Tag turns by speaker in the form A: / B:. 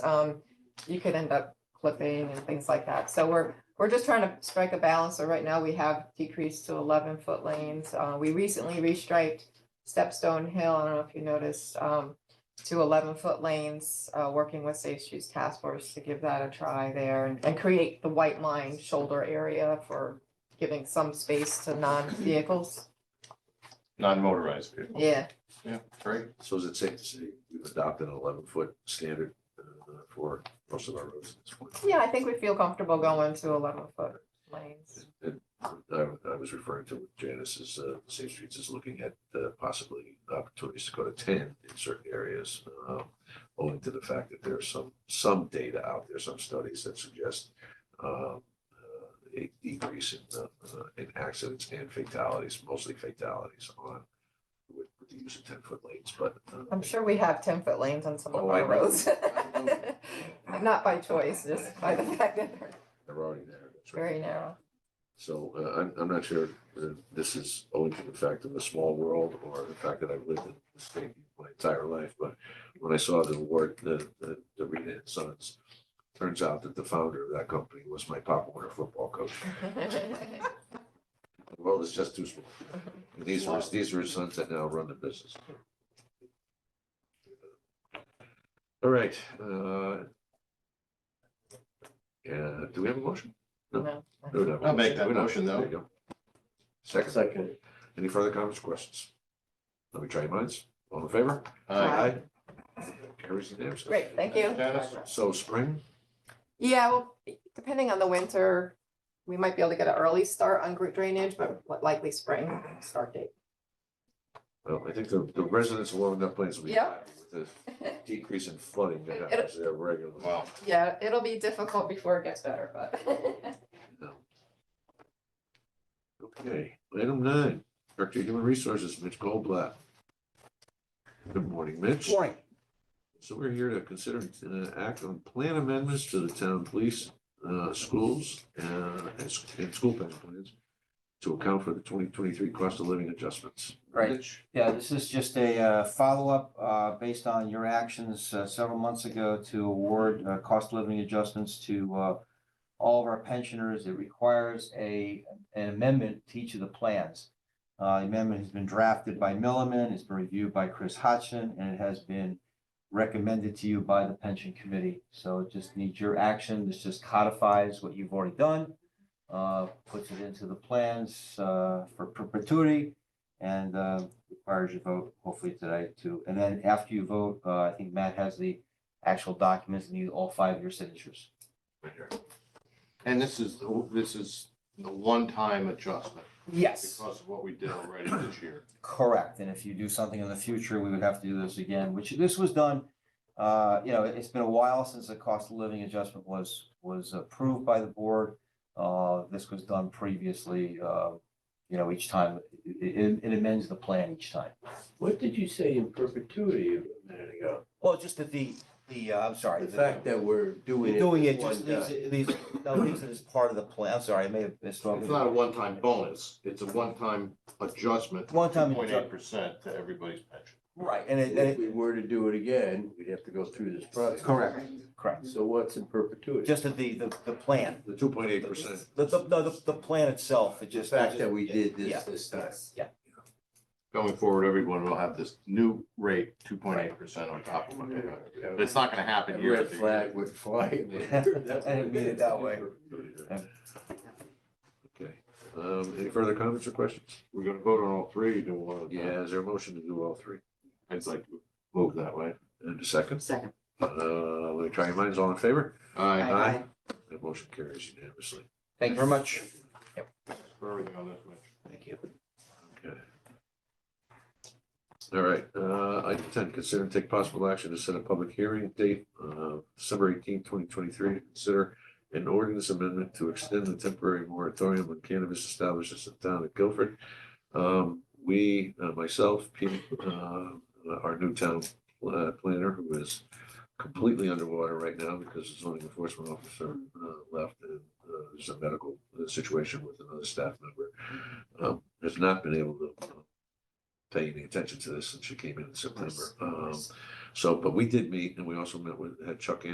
A: um, you could end up clipping and things like that. So we're, we're just trying to strike a balance. So right now we have decreased to eleven foot lanes. Uh, we recently restriped Stepstone Hill, I don't know if you noticed, um, to eleven foot lanes, uh, working with Safe Streets Task Force to give that a try there and, and create the white line shoulder area for giving some space to non-vehicles.
B: non-motorized vehicle.
A: Yeah,
B: Yeah, great.
C: So is it safe to say we've adopted an eleven foot standard uh, for most of our roads at this point?
A: yeah, I think we feel comfortable going to eleven foot lanes.
C: And I, I was referring to what Janice is, uh, Safe Streets is looking at uh, possibly opportunities to go to ten in certain areas. um, Owing to the fact that there's some, some data out there, some studies that suggest um, uh, a decrease in, uh, uh, in accidents and fatalities, mostly fatalities on with with the use of ten foot lanes, but. uh,
A: I'm sure we have ten foot lanes on some of
C: Oh, I
A: our
C: know.
A: roads.
C: I know.
A: Not by choice, just by the fact that they're
C: They're already there. That's right.
A: very narrow.
C: So uh, I'm, I'm not sure uh, this is owing to the fact of a small world or the fact that I've lived in this state my entire life, but when I saw the award, the, the, the Rita and Sons, turns out that the founder of that company was my Pop Warner football coach. The world is just too small. And these were, these were his sons that now run the business. All right, uh, yeah, do we have a motion?
A: No.
C: No, no,
B: I'll make that
C: we're not.
B: motion, though.
C: There you go. Second. Second. Any further comments, or questions? Let me try your minds. All in favor?
B: Aye.
C: Carries unanimously.
A: Great, thank you.
B: Dennis?
C: So spring,
A: Yeah, well, depending on the winter, we might be able to get an early start on group drainage, but likely spring start date.
C: well, I think the, the residents along that place will be
A: Yeah.
C: happy with the decrease in flooding that
A: It'll-
C: happens there regularly.
B: Wow.
A: Yeah, it'll be difficult before it gets better, but.
C: No. Okay, item nine, Director of Human Resources, Mitch Goldblatt. Good morning, Mitch.
D: Morning.
C: So we're here to consider and uh, act on plan amendments to the town police, uh, schools, uh, and, s- and school pension plans to account for the twenty twenty-three cost of living adjustments.
D: Right.
C: Mitch?
D: Yeah, this is just a uh, follow-up uh, based on your actions uh, several months ago to award uh, cost of living adjustments to uh, all of our pensioners. It requires a, an amendment to each of the plans. Uh, The Amendment has been drafted by Milliman, it's been reviewed by Chris Hodgson, and it has been recommended to you by the pension committee. So it just needs your action. This just codifies what you've already done, uh, puts it into the plans uh, for perpetuity, and uh, requires your vote hopefully today too. And then after you vote, uh, I think Matt has the actual documents and need all five of your signatures.
C: Right here.
B: And this is, this is the one-time adjustment
D: Yes.
B: because of what we did already this year.
D: Correct. And if you do something in the future, we would have to do this again, which this was done. Uh, you know, it- it's been a while since the cost of living adjustment was, was approved by the board. Uh, this was done previously, uh, you know, each time, it, it- it amends the plan each time.
E: What did you say in perpetuity a minute ago?
D: Well, just that the, the, uh, I'm sorry.
E: The fact that we're doing it.
D: Doing it
E: one
D: just leaves,
E: time.
D: it leaves, no, leaves it as part of the plan. I'm sorry, I may have
B: It's
D: misspoken.
B: not a one-time bonus. It's a one-time adjustment.
D: One time,
B: Point eight percent to everybody's pension.
D: right, and it, and
E: If
D: it,
E: we were to do it again, we'd have to go through this process.
D: correct, correct.
E: So what's in perpetuity?
D: Just that the, the, the plan.
C: The two point eight percent.
D: The, the, no, the, the plan itself, it
E: The
D: just.
E: fact that we did
D: Yeah.
E: this this time.
B: Going forward, everyone will have this new rate, two point eight percent on top of what they got. But it's not gonna
E: A
B: happen year
E: red
B: after year.
E: flag would fly.
D: I didn't mean it that way.
C: Okay, um, any further comments or questions?
B: We're gonna vote on all three, you do one. at a time.
C: Yeah, is there a motion to do all three?
B: I'd like to move that way.
C: And a second,
A: Second.
C: uh, let me try your minds, all in favor?
B: Aye.
A: Aye.
C: That motion carries unanimously.
D: Thank you very much.
B: For everything on this, Mitch.
C: Thank you. Okay. All right, uh, item ten, consider and take possible action to set a public hearing date, uh, December eighteenth, twenty twenty-three. Consider an ordinance amendment to extend the temporary moratorium on cannabis establishments in town of Guilford. Um, we, uh, myself, Pete, uh, our new town pla- planner, who is completely underwater right now because the zoning enforcement officer, uh, left and, uh, there's a medical situation with another staff member um, has not been able to uh, pay any attention to this since she came in in September. Um, so, but we did meet and we also met with, had Chuck in.